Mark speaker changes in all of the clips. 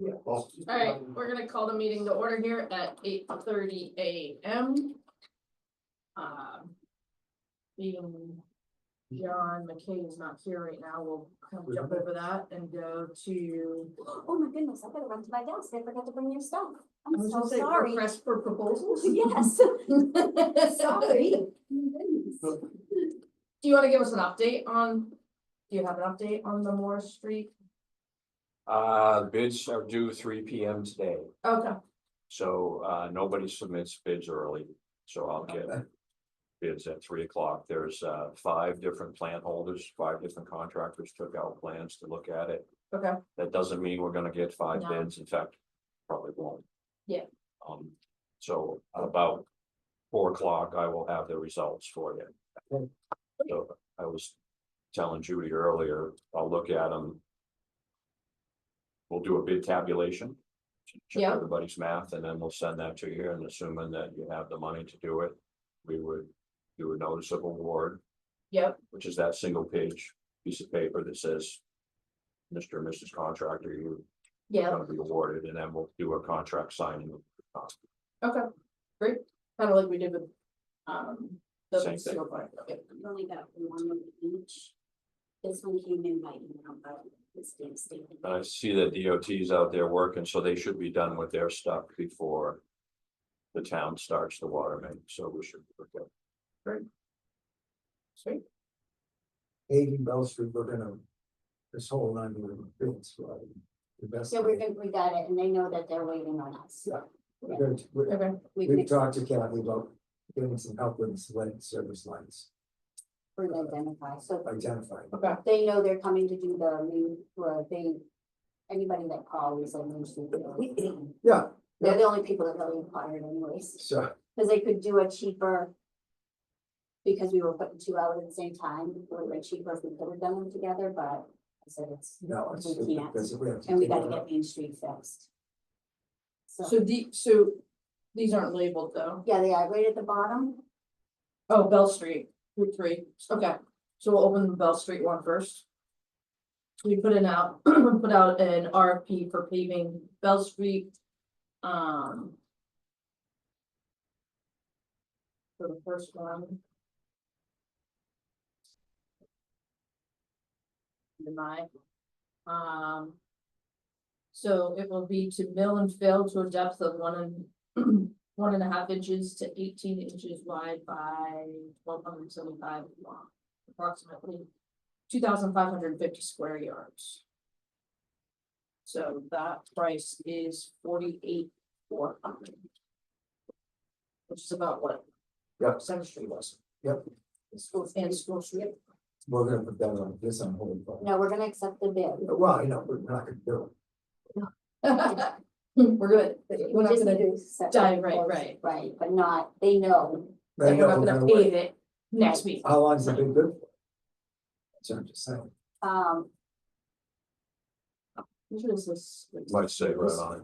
Speaker 1: All
Speaker 2: All right, we're gonna call the meeting to order here at eight thirty AM. Um, Being John McKay is not here right now, we'll kind of jump over that and go to.
Speaker 3: Oh my goodness, I better run to my desk. I forgot to bring your stuff.
Speaker 2: I
Speaker 3: I'm
Speaker 2: was
Speaker 3: so
Speaker 2: gonna say,
Speaker 3: sorry.
Speaker 2: Request for proposals?
Speaker 3: Yes. Sorry. My goodness.
Speaker 2: Do you wanna give us an update on, do you have an update on the Moore Street?
Speaker 4: Uh, bids are due three P M today,
Speaker 2: Okay,
Speaker 4: so uh nobody submits bids early, so I'll get. Bids at three o'clock, there's uh five different plant holders, five different contractors took out plans to look at it.
Speaker 2: okay,
Speaker 4: That doesn't mean we're gonna get five
Speaker 2: No.
Speaker 4: bids, in fact, probably won't.
Speaker 2: Yeah.
Speaker 4: Um, so about four o'clock, I will have the results for you. So I was telling Judy earlier, I'll look at them. We'll do a bid tabulation. Check
Speaker 2: Yeah.
Speaker 4: everybody's math, and then we'll send that to you, and assuming that you have the money to do it, we would do a notice of award
Speaker 2: yep,
Speaker 4: which is that single page piece of paper that says. Mr. and Mrs. Contractor, you're
Speaker 2: yeah,
Speaker 4: gonna be awarded, and then we'll do a contract signing.
Speaker 2: okay, great, kinda like we did with, um. the
Speaker 4: Same thing.
Speaker 2: single point, okay.
Speaker 3: We've only got one of each. This one came in by email, but it's damn statement.
Speaker 4: And I see that DOT's out there working, so they should be done with their stuff before. The town starts the water main, so we should. be okay.
Speaker 2: Sweet,
Speaker 1: Eighty Bell Street, we're gonna. This whole line we're gonna build, so. uh, The best.
Speaker 3: So we're good, we got it, and they know that they're waiting on us.
Speaker 1: Yeah. We're gonna- we're-
Speaker 2: okay,
Speaker 3: We
Speaker 1: We've
Speaker 3: could,
Speaker 1: talked to Kathy about getting some help with select service lines,
Speaker 3: we identify, so
Speaker 1: identifying.
Speaker 2: okay,
Speaker 3: they know they're coming to do the main, or they. Anybody that calls, I mean,
Speaker 1: Yeah,
Speaker 3: they're the only people that really inquired anyways.
Speaker 1: so
Speaker 3: Cause they could do a cheaper. Because we were putting two out at the same time, it would have been cheaper if we could have done them together, but I said it's,
Speaker 1: no, it's.
Speaker 3: We can't.
Speaker 1: because we have to
Speaker 3: and we
Speaker 1: take
Speaker 3: gotta
Speaker 1: it
Speaker 3: get
Speaker 1: out.
Speaker 3: Main Street fixed. So,
Speaker 2: so the, so these aren't labeled though.
Speaker 3: yeah, they are right at the bottom,
Speaker 2: Oh, Bell Street, Route three, okay, so we'll open the Bell Street one first. We put in out, put out an RFP for paving Bell Street, um. For the first one. Deny. Um. So it will be to mill and fill to a depth of one and one and a half inches to eighteen inches wide by twelve hundred seventy-five long, approximately two thousand five hundred and fifty square yards. So that price is forty-eight four hundred. Which is about what?
Speaker 1: Yep.
Speaker 2: Center Street was.
Speaker 1: Yep.
Speaker 2: School and school street.
Speaker 1: We're gonna put that on, this on hold. but-
Speaker 3: no, we're gonna accept the bid.
Speaker 1: Well, I know, we're not gonna do
Speaker 2: We're good. We're
Speaker 3: We
Speaker 2: not
Speaker 3: just need
Speaker 2: gonna,
Speaker 3: to accept the
Speaker 2: dive right-
Speaker 3: proposal,
Speaker 2: right.
Speaker 3: Right, but not, they know,
Speaker 1: it. I
Speaker 2: we're
Speaker 1: know
Speaker 2: not
Speaker 1: we're
Speaker 2: gonna
Speaker 1: wait.
Speaker 2: pave it next week.
Speaker 1: How long's it been good? for? So I'm just saying,
Speaker 3: um,
Speaker 2: Which is this?
Speaker 4: Might say right on, it.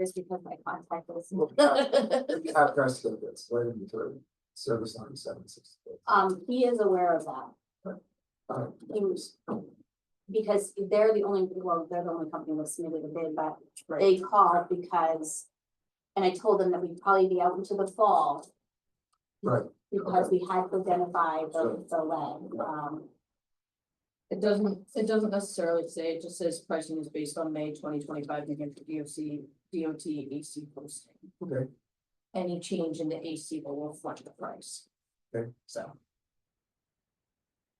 Speaker 3: just because my contact was.
Speaker 1: after I said this, right in the third, service line seven six.
Speaker 3: Um, he is aware of that.
Speaker 1: Uh,
Speaker 3: He was- Because they're the only, well, they're the only company that submitted a bid, but they called because. And I told them that we'd probably be out into the fall
Speaker 1: Right,
Speaker 3: because we had to identify
Speaker 1: Sure.
Speaker 3: the, the lead, um,
Speaker 2: It doesn't, it doesn't necessarily say, it just says pricing is based on May twenty twenty-five, New Hampshire DOC, DOT AC E posting.
Speaker 1: Okay.
Speaker 2: Any change in the AC will reflect the price.
Speaker 1: Okay.
Speaker 2: So.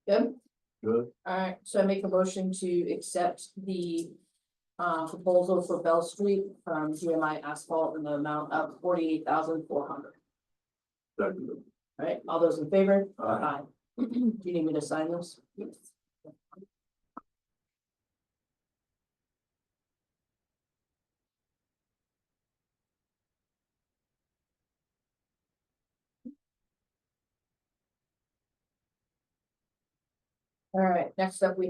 Speaker 2: Good,
Speaker 4: good,
Speaker 2: alright, so I make a motion to accept the uh proposal for Bell Street from GMI Asphalt in the amount of forty-eight thousand four hundred.
Speaker 4: That-
Speaker 2: Alright, all those in favor?
Speaker 1: Aye.
Speaker 2: Do you need me to sign those? All right, next up, we